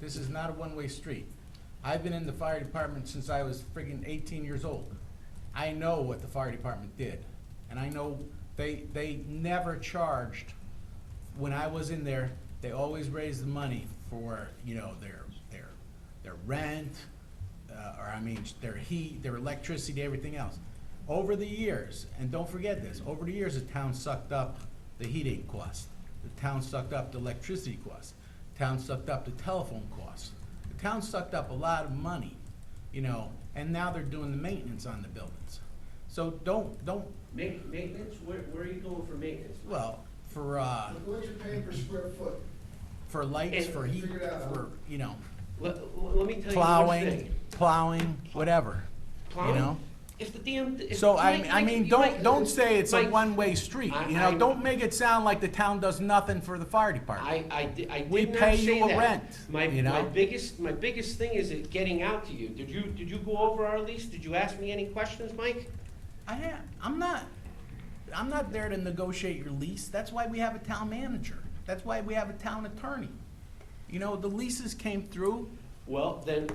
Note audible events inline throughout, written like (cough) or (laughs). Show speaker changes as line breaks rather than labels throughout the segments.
This is not a one-way street. I've been in the fire department since I was friggin' eighteen years old. I know what the fire department did, and I know they, they never charged when I was in there, they always raised the money for, you know, their, their, their rent, uh, or I mean, their heat, their electricity, everything else. Over the years, and don't forget this, over the years, the town sucked up the heating cost. The town sucked up the electricity cost. Town sucked up the telephone cost. The town sucked up a lot of money, you know, and now they're doing the maintenance on the buildings. So don't, don't,
Ma- Maintenance, where, where are you going for maintenance?
well, for, uh,
Look what you're paying per square foot.
for lights, for heat,
Figure it out.
for, you know,
Let, let me tell you one
plowing,
thing.
plowing, whatever, you
Plowing?
know?
If the damn. if-
So I,
Mike,
I
Mike,
mean,
you
don't,
might-
don't say it's a
Mike,
one-way street,
I-
you know?
I-
Don't make it sound like the town does nothing for the fire department.
I, I di- I
We
did
pay
not
you
say
a
that.
rent,
My,
you
my
know?
biggest, my biggest thing is it getting out to you. Did you, did you go over our lease? Did you ask me any questions, Mike?
I, ha- I'm not, I'm not there to negotiate your lease. That's why we have a town manager. That's why we have a town attorney. You know, the leases came through,
Well, then.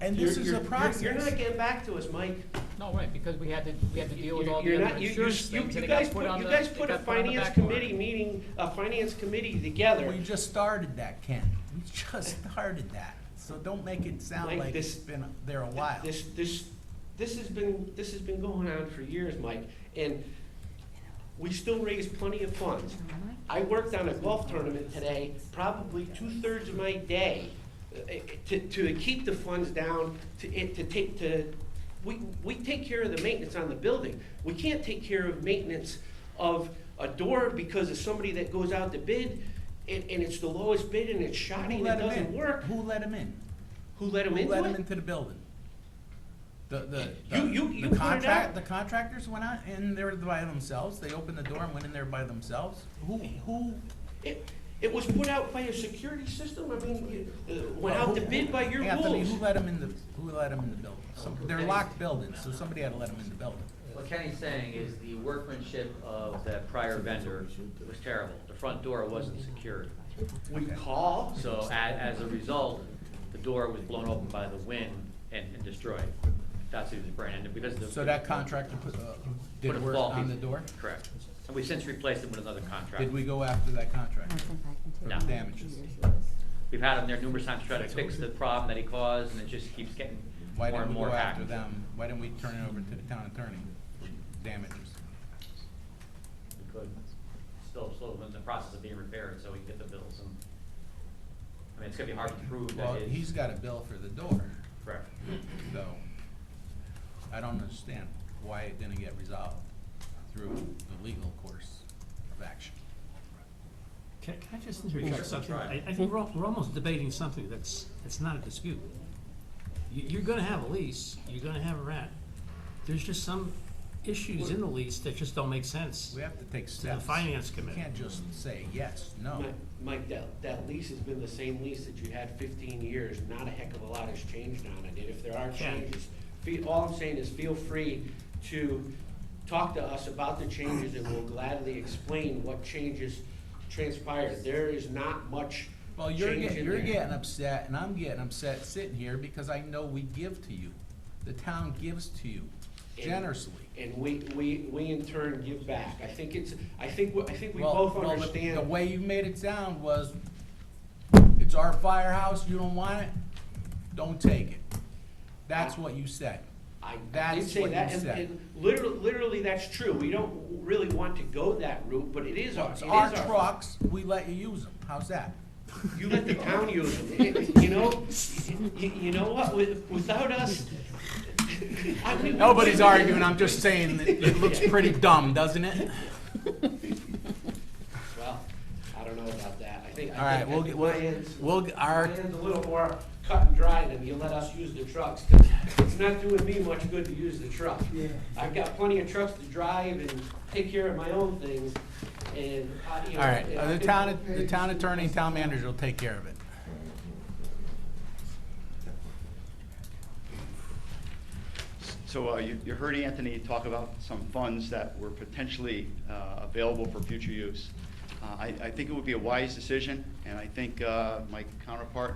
and
you're-
this is
you're-
a
you're-
process.
You're not getting back to us, Mike.
No, right, because we had to, we had to deal with all
You're
the
not,
other
you, you,
insurance
you
things,
you
and it got
guys
put
put,
on
you
the,
guys
it
put a
got put on the
finance
back burner.
committee meeting, a finance committee together.
We just started that, Ken. We just (laughs) started that. So don't make it sound
Mike,
like
this-
it's been there a while.
This, this, this has been, this has been going on for years, Mike, and we still raise plenty of funds. I worked on a golf tournament today, probably two-thirds of my day, uh, to, to keep the funds down, to, it- to take, to, we, we take care of the maintenance on the building. We can't take care of maintenance of a door because of somebody that goes out to bid, and, and it's the lowest bid, and it's shoddy,
Who let
and it
'em
doesn't
in?
work.
Who let him in?
Who let them
Who
into
let him
it?
into the building? The, the.
You-
the-
you-
the
you put it
contract-
out.
The contractors went out in there by themselves. They opened the door and went in there by themselves. Who, who,
It, it was put out by a security system, I mean, you, uh, went out to bid by your
Anthony,
rules.
who let him in the, who let him in the building? Some- They're locked buildings, so somebody had to let him in the building.
What Kenny's saying is the workmanship of that prior vendor was terrible. The front door wasn't secured.
We call,
So a- as a result, the door was blown open by the wind and and destroyed. That's who was brand, and because the.
So that contractor put, uh,
put a
did work
faulty-
on the door?
Correct. And we've since replaced it with another contractor.
Did we go after that contractor?
No.
Damages.
We've had him there numerous times trying to fix the problem that he caused, and it just keeps getting more
Why
and
didn't we
more
go
hacked.
after them? Why didn't we turn it over to the town attorney for damages?
We couldn't. Still, still in the process of being repaired, so we can get the bills and, I mean, it's gonna be hard to prove
Well,
that it
he's
is
got a bill for the door,
correct.
so I don't understand why it didn't get resolved through the legal course of action.
Can can I just
Sure,
interject
sure,
something?
sure.
I, I think we're, al- we're almost debating something that's, that's not a dispute. You, you're gonna have a lease, you're gonna have a rent. There's just some issues in the lease that just don't make sense.
We have to take steps.
finance committee.
You can't just say yes, no.
Mike, Mike, that, that lease has been the same lease that you had fifteen years, not a heck of a lot has changed on it, and if there are
Yeah.
changes, fe- all I'm saying is feel free to talk to us about the changes, and we'll gladly explain what changes transpired. There is not much
Well,
change
you're
in
getting, you're
there.
getting upset and I'm getting upset sitting here because I know we give to you. The town gives to you generously.
And we, we, we in turn give back. I think it's, I think, we- I think we
Well-
both
well, the-
understand.
The way you made it sound was, it's our firehouse, you don't want it, don't take it. That's what you said.
I I did
That's
say
what
that,
you
and,
said.
and literally, literally, that's true. We don't really want to go that route, but it is our, it
It's
is
our
our.
trucks, we let you use them, how's that?
You let the town use them, you know, you, you know what, with, without us. (laughs) I mean-
Nobody's arguing, I'm just saying that it looks pretty dumb, doesn't it?
Well, I don't know about that. I think,
All right,
I think,
we'll
I
get-
think
we'll-
my end's-
we'll get our-
my end's a little more cut and dry than you let us use the trucks, 'cause it's not doing me much good to use the truck. I've got plenty of trucks to drive and take care of my own things, and, I- you know.
All right,
and I
uh, the
think-
town, the town attorney and town manager will take care of it.
So uh, you you heard Anthony talk about some funds that were potentially uh, available for future use. Uh, I I think it would be a wise decision, and I think uh, my counterpart